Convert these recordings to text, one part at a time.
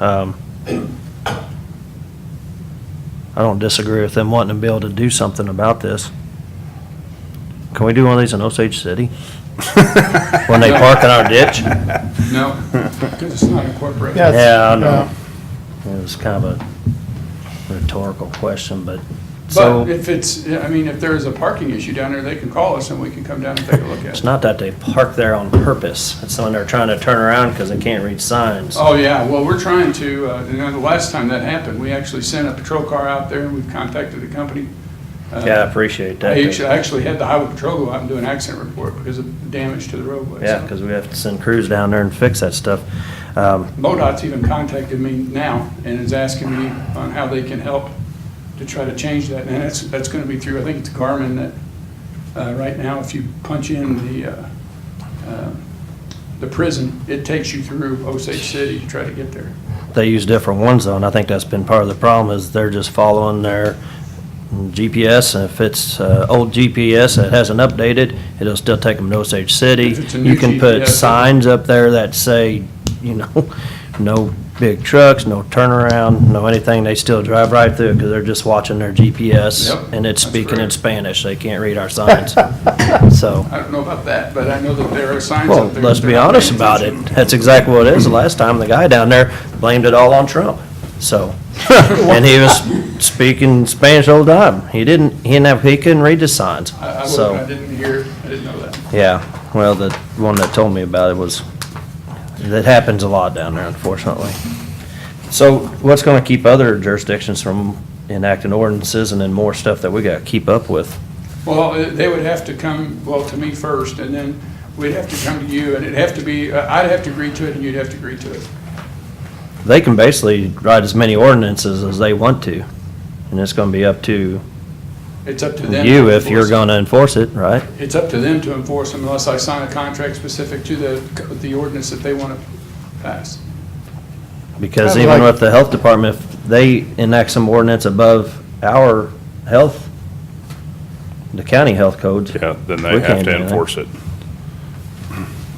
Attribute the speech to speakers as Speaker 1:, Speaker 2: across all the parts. Speaker 1: Um, I don't disagree with them wanting to be able to do something about this. Can we do one of these in Osage City? When they park in our ditch?
Speaker 2: No, because it's not incorporated.
Speaker 3: Yes.
Speaker 1: Yeah, I know. It was kind of a rhetorical question, but, so,
Speaker 2: But if it's, I mean, if there is a parking issue down there, they can call us and we can come down and take a look at
Speaker 1: it's
Speaker 2: it.
Speaker 1: not that they park there on purpose. It's when they're trying to turn around because they can't read signs.
Speaker 2: Oh, yeah, well, we're trying to, uh, you know, the last time that happened, we actually sent a patrol car out there and we've contacted the company. Uh,
Speaker 1: Yeah, I appreciate that.
Speaker 2: I actu- actually had the highway patrol go out and do an accident report because of the damage to the roadway.
Speaker 1: Yeah,
Speaker 2: so.
Speaker 1: because we have to send crews down there and fix that stuff. Um,
Speaker 2: MoDOT's even contacted me now and is asking me on how they can help to try to change that. And that's, that's going to be through, I think it's Garmin that, uh, right now, if you punch in the, uh, uh, the prison, it takes you through Osage City to try to get there.
Speaker 1: They use different ones though, and I think that's been part of the problem is they're just following their GPS. And if it's uh, old GPS that hasn't updated, it'll still take them to Osage City.
Speaker 2: If it's a
Speaker 1: You
Speaker 2: new
Speaker 1: can
Speaker 2: GPS.
Speaker 1: put signs up there that say, you know, no big trucks, no turnaround, no anything. They still drive right through because they're just watching their GPS.
Speaker 2: Yep,
Speaker 1: And it's
Speaker 2: that's
Speaker 1: speaking in
Speaker 2: correct.
Speaker 1: Spanish. They can't read our signs. So.
Speaker 2: I don't know about that, but I know that there are signs
Speaker 1: Well,
Speaker 2: up there.
Speaker 1: let's
Speaker 2: that
Speaker 1: be
Speaker 2: they're not
Speaker 1: honest
Speaker 2: paying
Speaker 1: about it.
Speaker 2: attention.
Speaker 1: That's exactly what it is. The last time, the guy down there blamed it all on Trump, so. And he was speaking Spanish all the time. He didn't, he didn't have, he couldn't read the signs,
Speaker 2: I, I wasn't- I
Speaker 1: so.
Speaker 2: didn't hear, I didn't know that.
Speaker 1: Yeah, well, the one that told me about it was, that happens a lot down there, unfortunately. So what's gonna keep other jurisdictions from enacting ordinances and then more stuff that we gotta keep up with?
Speaker 2: Well, uh, they would have to come, well, to me first, and then we'd have to come to you, and it'd have to be, uh, I'd have to agree to it, and you'd have to agree to it.
Speaker 1: they can basically write as many ordinances as they want to, and it's gonna be up to
Speaker 2: It's up to them.
Speaker 1: you
Speaker 2: to
Speaker 1: if you're
Speaker 2: enforce it.
Speaker 1: gonna enforce it, right?
Speaker 2: It's up to them to enforce them unless I sign a contract specific to the, the ordinance that they want to pass.
Speaker 1: Because
Speaker 3: Kinda
Speaker 1: even
Speaker 3: like-
Speaker 1: with the health department, if they enact some ordinance above our health, the county health codes.
Speaker 4: Yeah, then
Speaker 1: we
Speaker 4: they have
Speaker 1: can't
Speaker 4: to
Speaker 1: do that.
Speaker 4: enforce it.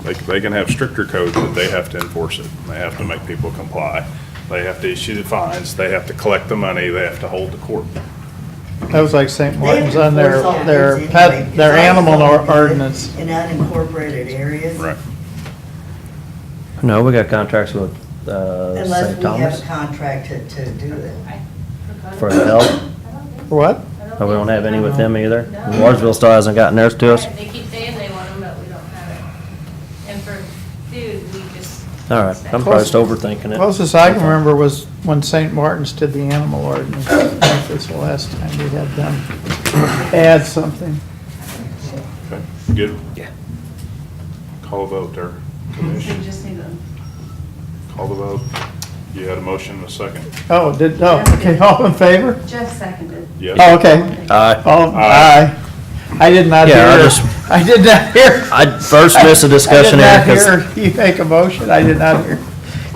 Speaker 4: They, c- they can have stricter codes, but they have to enforce it. They have to make people comply. They have to issue the fines, they have to collect the money, they have to hold the court.
Speaker 3: That was like St. Martin's on
Speaker 5: They
Speaker 3: their,
Speaker 5: enforce all
Speaker 3: their
Speaker 5: kinds of anyway,
Speaker 3: pet, their
Speaker 5: because I
Speaker 3: animal
Speaker 5: saw
Speaker 3: or-
Speaker 5: them
Speaker 3: ordinance.
Speaker 5: In unincorporated areas.
Speaker 1: No, we got contracts with, uh,
Speaker 5: Unless
Speaker 1: St.
Speaker 5: we have
Speaker 1: Thomas
Speaker 5: a contract to, to do that.
Speaker 1: for health.
Speaker 3: What?
Speaker 1: Oh, we don't have any with them either. Lawrenceville still hasn't gotten theirs to us.
Speaker 6: They keep saying they want them, but we don't have it. And for food, we just.
Speaker 1: All right, I'm probably just overthinking it.
Speaker 3: Closest I can remember was when St. Martin's did the animal ordinance. I think That's the last time we had them add something.
Speaker 4: Okay, good.
Speaker 1: Yeah.
Speaker 4: Call the vote there.
Speaker 6: We
Speaker 4: Commission,
Speaker 6: just need them.
Speaker 4: call the vote. You had a motion and a second.
Speaker 3: Oh, did, oh, okay, all in favor?
Speaker 6: Jeff seconded.
Speaker 4: Yes.
Speaker 3: Oh, okay.
Speaker 1: Aye.
Speaker 3: Oh,
Speaker 4: Aye.
Speaker 3: aye. I did not hear,
Speaker 1: Yeah, I just-
Speaker 3: I did not hear.
Speaker 1: I first missed a discussion here
Speaker 3: I did
Speaker 1: 'cause-
Speaker 3: not hear you make a motion. I did not hear.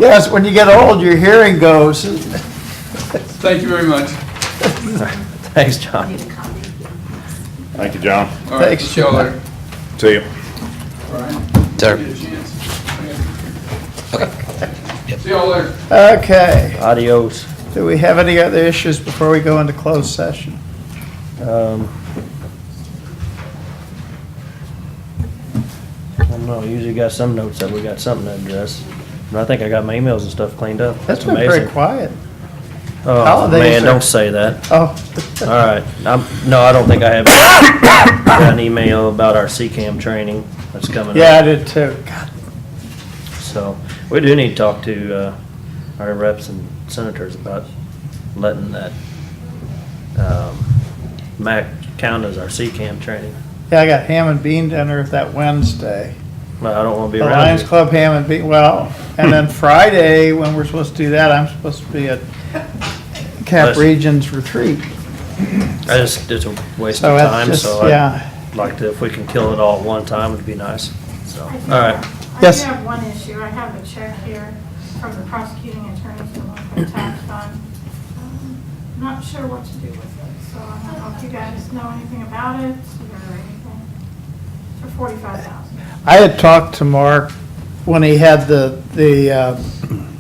Speaker 3: Yes, when you get old, your hearing goes.
Speaker 2: Thank you very much.
Speaker 1: Thanks, John.
Speaker 6: Need a copy.
Speaker 4: Thank you, John.
Speaker 2: All right,
Speaker 3: Thanks,
Speaker 2: see y'all later.
Speaker 4: See you.
Speaker 2: All right.
Speaker 7: Sir.
Speaker 2: Give you a chance. See y'all later.
Speaker 3: Okay.
Speaker 1: Adios.
Speaker 3: Do we have any other issues before we go into closed session?
Speaker 1: Um, I don't know, usually got some notes that we got something to address. And I think I got my emails and stuff cleaned up.
Speaker 3: That's
Speaker 1: It's
Speaker 3: been
Speaker 1: amazing.
Speaker 3: very quiet.
Speaker 1: Oh,
Speaker 3: Holidays
Speaker 1: man,
Speaker 3: are-
Speaker 1: don't say that.
Speaker 3: Oh,
Speaker 1: All right. I'm, no, I don't think I have. Got an email about our CCAM training that's coming up.
Speaker 3: yeah, I did too. God,
Speaker 1: So, we do need to talk to, uh, our reps and senators about letting that, um, MAC count as our CCAM training.
Speaker 3: Yeah, I got ham and bean dinner that Wednesday.
Speaker 1: But I don't wanna be
Speaker 3: The
Speaker 1: around you.
Speaker 3: Lions Club ham and bean, well, and then Friday, when we're supposed to do that, I'm supposed to be at Cap
Speaker 1: Listen.
Speaker 3: Regions Retreat.
Speaker 1: I just, it's a waste
Speaker 3: So
Speaker 1: of
Speaker 3: that's
Speaker 1: time,
Speaker 3: just-
Speaker 1: so
Speaker 3: yeah.
Speaker 1: I'd like to, if we can kill it all at one time, it'd be nice, so, all right.
Speaker 3: Yes.
Speaker 8: I do have one issue. I have a check here from the prosecuting attorney for local tax fund. Um, Not sure what to do with it, so I don't know if you guys know anything about it or anything. For forty-five thousand.
Speaker 3: I had talked to Mark when he had the, the uh,